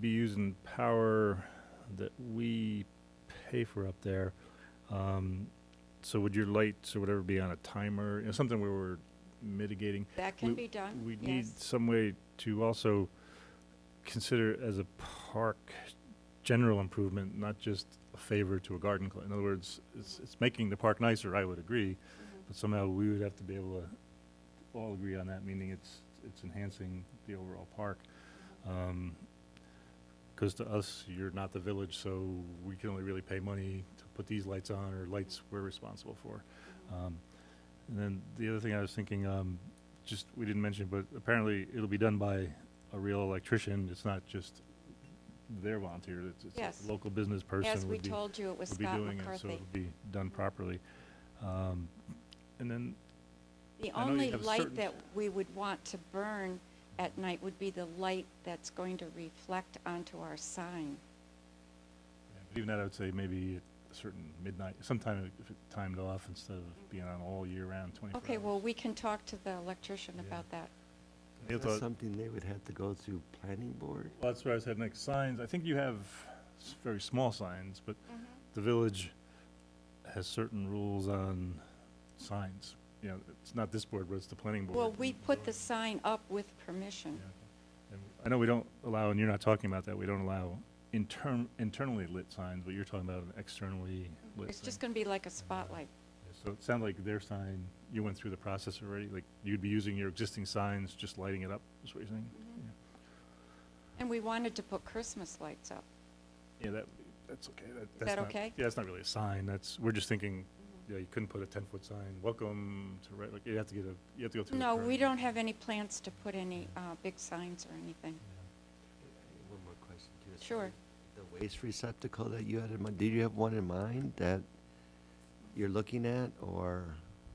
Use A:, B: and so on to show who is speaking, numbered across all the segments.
A: be using power that we pay for up there. Um, so would your lights or whatever be on a timer, you know, something where we're mitigating?
B: That can
A: We-
B: be done,
A: We need
B: Uh, yes.
A: some way to also consider it as a park general improvement, not just a favor to a garden club. In other words, it's, it's making the park nicer, I would agree,
B: Mhm.
A: but somehow we would have to be able to all agree on that, meaning it's, it's enhancing the overall park. Because Um, to us, you're not the village, so we can only really pay money to put these lights on, or lights we're responsible for.
B: Mm-hmm.
A: Um, And then the other thing I was thinking, um, just, we didn't mention, but apparently it'll be done by a real electrician. It's not just their volunteer, it's, it's
B: Yes.
A: a local business person.
B: As we
A: would be-
B: told you, it was
A: would be
B: Scott
A: doing it, So
B: McCarthy.
A: it'll be done properly. Um, And then
B: The
A: I know you
B: only
A: have
B: light
A: certain-
B: that we would want to burn at night would be the light that's going to reflect onto our sign.
A: Yeah, but Even that, I would say maybe at a certain midnight, sometime if it timed off instead of being on all year round, twenty-four hours.
B: Okay, well, we can talk to the electrician
A: Yeah.
B: about that.
A: Yeah,
C: That's
A: thought-
C: something they would have to go through planning board?
A: Well, that's where I was heading next. Signs, I think you have s- very small signs, but the village has certain rules on signs. You know, it's not this board, but it's the planning board.
B: Well, we
A: and-
B: put the sign up with permission.
A: And I know we don't allow, and you're not talking about that, we don't allow intern, internally lit signs, but you're talking about an externally lit
B: It's
A: sign.
B: just gonna be like a spotlight.
A: So it sounded like their sign, you went through the process already, like you'd be using your existing signs, just lighting it up, is what you're saying?
B: And we wanted to put Christmas lights up.
A: Yeah, that, that's okay. That- that's
B: that
A: not-
B: okay?
A: Yeah, that's not really a sign, that's, we're just thinking, yeah, you couldn't put a ten-foot sign, welcome to, Red-" like, you have to get a, you have to go through. the
B: No, we
A: permit.
B: don't have any plans to put any, uh, big signs or anything.
C: One more question to this.
B: Sure.
C: The waste receptacle that you had in mind, did you have one in mind that you're looking at, or?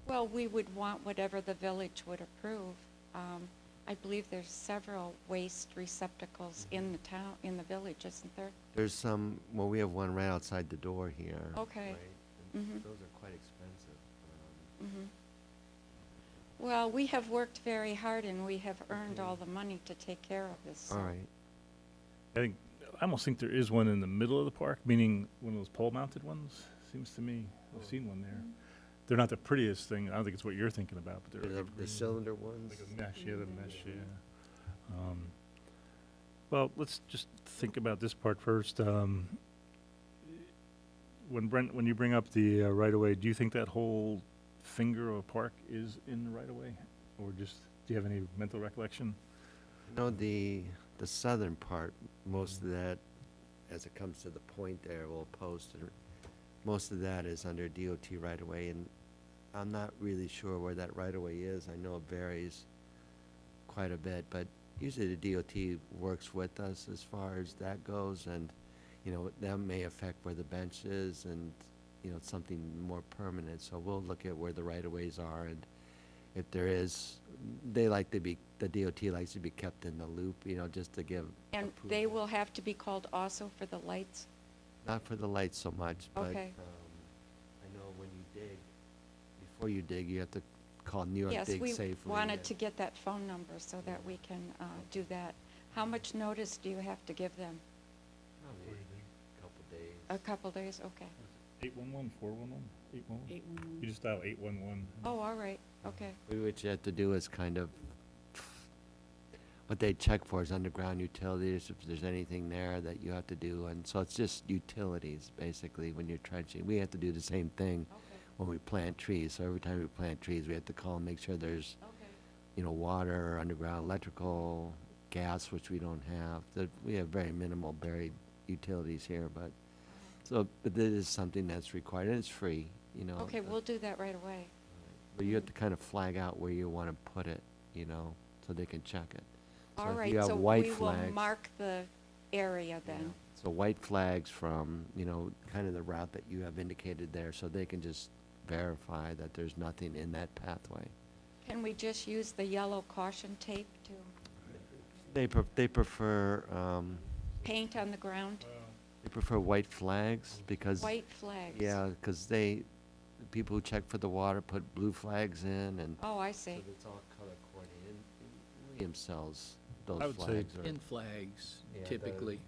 B: Well, we would want whatever the village would approve. Um, I believe there's several waste receptacles in the town, in the village, isn't there?
C: There's some, well, we have one right outside the door here.
B: Okay.
C: right?
B: Mhm.
C: And Those are quite expensive. um,
B: Mhm. Well, we have worked very hard and we have earned all the money to take care of this. so-
C: All right,
A: I think, I almost think there is one in the middle of the park, meaning one of those pole-mounted ones, seems to me,
B: Oh.
A: I've seen one
B: Mm-hmm.
A: there. They're not the prettiest thing, I don't think it's what you're thinking about, but they're.
C: the the
A: evergreen.
C: cylinder ones?
A: Like a mesh, yeah, the mesh, yeah. Um, Well, let's just think about this part first. Um, When Brent, when you bring up the uh, right-of-way, do you think that whole finger of a park is in the right-of-way? Or just, do you have any mental recollection?
C: No, the, the southern part, most of that, as it comes to the point there, we'll post, and most of that is under DOT right away, and I'm not really sure where that right away is. I know it varies quite a bit, but usually the DOT works with us as far as that goes, and, you know, that may affect where the bench is and, you know, something more permanent, so we'll look at where the right of ways are and if there is, they like to be, the DOT likes to be kept in the loop, you know, just to give,
B: And they will have to be called also for the lights?
C: not for the lights so much, but.
B: Okay.
C: um, I know when you dig, before you dig, you have to call New York
B: Yes,
C: Dig
B: we
C: Safely.
B: wanted
C: and-
B: to get that phone number so that we can uh, do that. How much notice do you have to give them?
C: Probably a Couple
B: A
C: days.
B: couple days? Okay.
C: Mm-hmm.
A: Eight-one-one, four-one-one, eight-one-one?
D: Eight one
A: You
D: one.
A: just dial eight-one-one.
B: Oh, all right, okay.
C: We- What you have to do is kind of, what they check for is underground utilities, if there's anything there that you have to do, and so it's just utilities, basically, when you're trenching. We have to do the same thing
B: Okay,
C: when we plant trees, so every time we plant trees, we have to call and make sure there's
B: okay.
C: you know, water, underground electrical, gas, which we don't have. The, we have very minimal buried utilities here, but, so, but this is something that's required, and it's free, you know.
B: Okay,
C: but-
B: we'll do that right away.
C: But you have to kind of flag out where you want to put it, you know, so they can check it.
B: All
C: if
B: right,
C: you have
B: so
C: white
B: we will
C: flags-
B: mark the area then.
C: So white flags from, you know, kind of the route that you have indicated there, so they can just verify that there's nothing in that pathway.
B: Can we just use the yellow caution tape to
C: They, pre- they prefer, um,
B: paint on the ground?
C: they prefer white flags because.
B: White flags?
C: Yeah, because they, the people who check for the water put blue flags in and.
B: Oh, I see.
C: it's all color coordinated. William sells those
A: I would say-
C: flags. or-
D: In flags
C: Yeah, the-
D: typically.